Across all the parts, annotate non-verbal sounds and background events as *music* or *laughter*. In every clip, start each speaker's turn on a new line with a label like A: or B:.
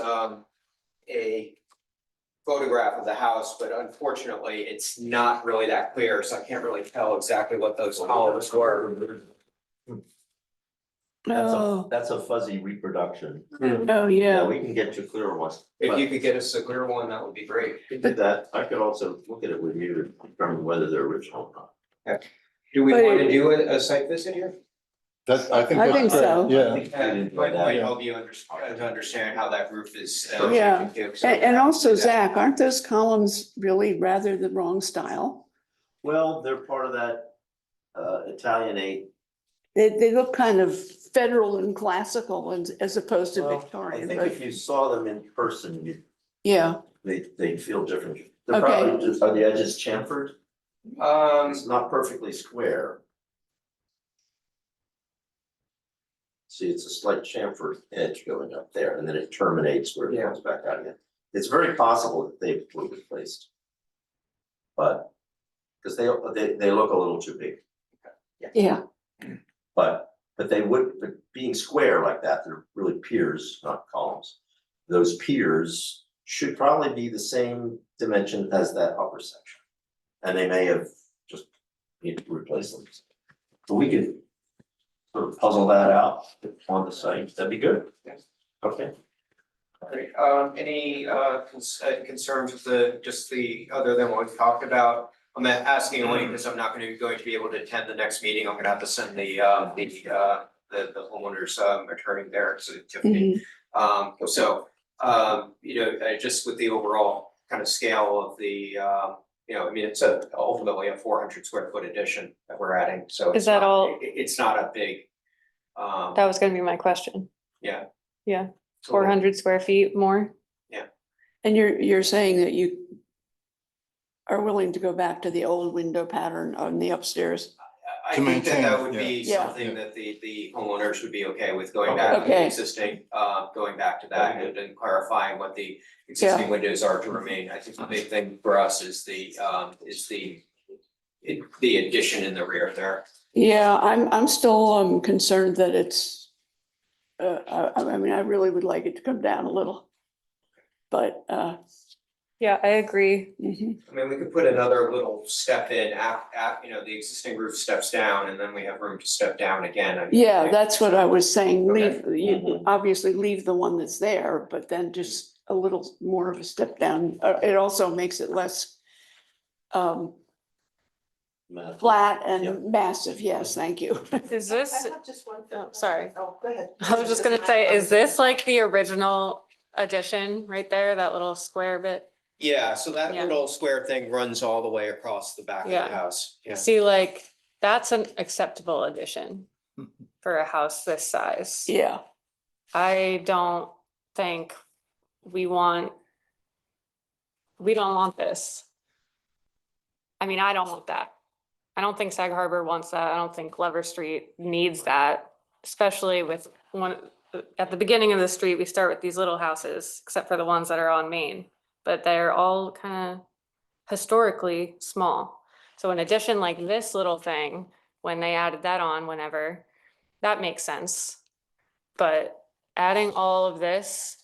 A: um, a photograph of the house, but unfortunately, it's not really that clear, so I can't really tell exactly what those columns were.
B: That's a,
C: Oh,
B: that's a fuzzy reproduction.
C: oh, yeah.
B: We can get you clearer ones.
A: If you
B: But
A: could get us a clear one, that would be great.
B: to do that, I could also look at it with you to determine whether they're original or not.
A: Do we
C: But-
A: want to do a, a site visit here?
D: That, I think.
C: I
D: that's
C: think
D: great,
C: so.
A: I
D: Yeah,
A: think that
B: Yeah.
A: Might, might
D: Yeah.
A: help you under, uh, to understand how that roof is. uh,
C: Yeah.
A: shaping too, so-
C: And, and also Zach, aren't those columns really rather the wrong style?
B: Well, they're part of that uh Italianate.
C: They, they look kind of federal and classical and as opposed to
B: Well, I
C: Victorian,
B: think
C: but
B: if you saw them in person, you,
C: yeah,
B: they they feel different. They're
C: Okay.
B: probably just, are the edges chamfered?
A: Um,
B: It's not perfectly square. See, it's a slight chamfered edge going up there and then it terminates where it
A: Yeah.
B: comes back out again. It's very possible that they were replaced. But, because they they they look a little too big,
C: yeah,
B: but but they would, but being square like that, they're really piers, not columns. Those piers should probably be the same dimension as that upper section. And they may have just need to replace them. So we could sort of puzzle that out on the site, that'd be good.
A: Yes.
B: Okay,
A: Alright, um, any, uh, cons- uh, concerns with the, just the, other than what we've talked about? I'm asking only because I'm not gonna, be going to be able to attend the next meeting, I'm gonna have to send the, uh, the, uh, the, the homeowner's, um, attorney there to Tiffany.
C: mhm,
E: Mm-hmm.
A: Um, so, um, you know, uh, just with the overall kind of scale of the, um, you know, I mean, it's a, ultimately a four hundred square foot addition that we're adding, so.
E: Is
A: it's
E: that
A: not-
E: all-
A: it- It's not a big, um.
E: That was gonna be my question,
A: it's a
E: four
A: little-
E: hundred square feet more,
C: and you're, you're saying that you are willing to go back to the old window pattern on the upstairs?
A: I- I
D: To
A: think that that
D: maintain,
A: would be
C: yeah. Yeah.
A: something that the, the homeowners would be okay with going back to the
C: Okay.
A: existing, uh, going back to that and and clarifying what the existing windows are to remain. I think the big thing for us is the, um, is the it- the addition in the rear there.
C: Yeah, I'm, I'm still, um, concerned that it's, uh, I, I mean, I really would like it to come down a little. But, uh,
E: yeah, I *laughs* agree,
C: mhm,
A: I mean, we could put another little step in af- af- you know, the existing roof steps down and then we have room to step down again. I mean,
C: yeah,
A: like-
C: that's what I was saying,
A: Okay.
C: leave, you
B: Mhm.
C: obviously leave the one that's there, but then just a little more of a step down. Uh, it also makes it less um,
B: Matt.
C: flat
B: Yeah.
C: and massive, yes, thank you. *laughs*
E: is this, oh, sorry.
F: Oh, go ahead.
E: I was just gonna say, is this like the original addition right there, that little square bit?
A: Yeah, so that
E: Yeah.
A: little square thing runs all the way across the back of the
E: Yeah.
A: house. Yeah.
E: See, like, that's an acceptable addition
F: Mm-hmm.
E: for a house this size.
C: Yeah,
E: I don't think we want, we don't want this. I mean, I don't want that. I don't think Sag Harbor wants that. I don't think Glover Street needs that, especially with one, at the beginning of the street, we start with these little houses, except for the ones that are on Main, but they're all kind of historically small. So an addition like this little thing, when they added that on whenever, that makes sense. But adding all of this,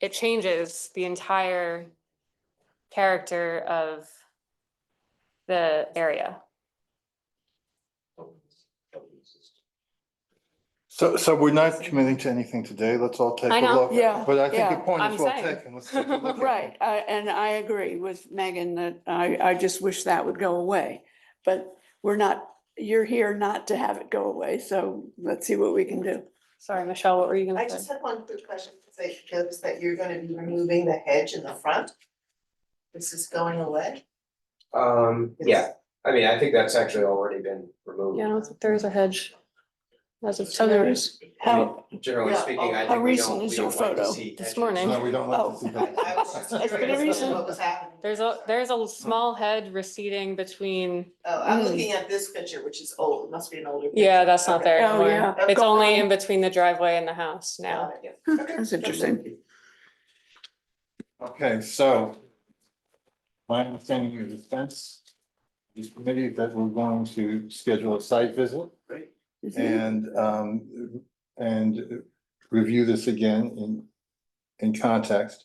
E: it changes the entire character of the area.
D: So, so we're not committing to anything today. Let's all take a
E: I know.
D: look.
C: Yeah,
D: But I think
C: yeah,
D: your point
E: I'm
D: is well
E: saying.
D: taken. Let's take a look. at it.
C: right, I- and I agree with Megan that I, I just wish that would go away. But we're not, you're here not to have it go away, so let's see what we can do.
E: Sorry, Michelle, what were you
F: I
E: gonna
F: just
E: say?
F: had one quick question, because I noticed that you're gonna be removing the hedge in the front. This is going away.
A: Um, yeah, I mean, I think that's actually already been removed.
E: Yeah, I don't think there is a hedge. That's a.
C: So there is, how,
A: Generally
F: Yeah,
A: speaking, I
F: how
A: think we
C: recent
A: don't, we
C: is your
A: don't like to
C: photo?
A: see.
E: This
A: edges.
E: morning.
D: No, we don't
C: Oh.
D: like to see
F: I was just
D: that.
C: It's been a
F: curious
C: recent-
F: What was happening?
E: There's a, there's a small head receding between,
F: Oh, I'm
C: Mm.
F: looking at this picture, which is old, it must be an older. picture.
E: Hmm. yeah, that's not
F: Okay.
E: there
C: Oh, yeah.
E: anymore. It's only
F: Gone.
E: in between the driveway and the house now.
F: Got it, yeah.
C: that's interesting.
D: Okay, so my understanding of the fence, this committee, that we're going to schedule a site visit
B: Great.
C: Mhm.
D: and, um, and review this again in in context.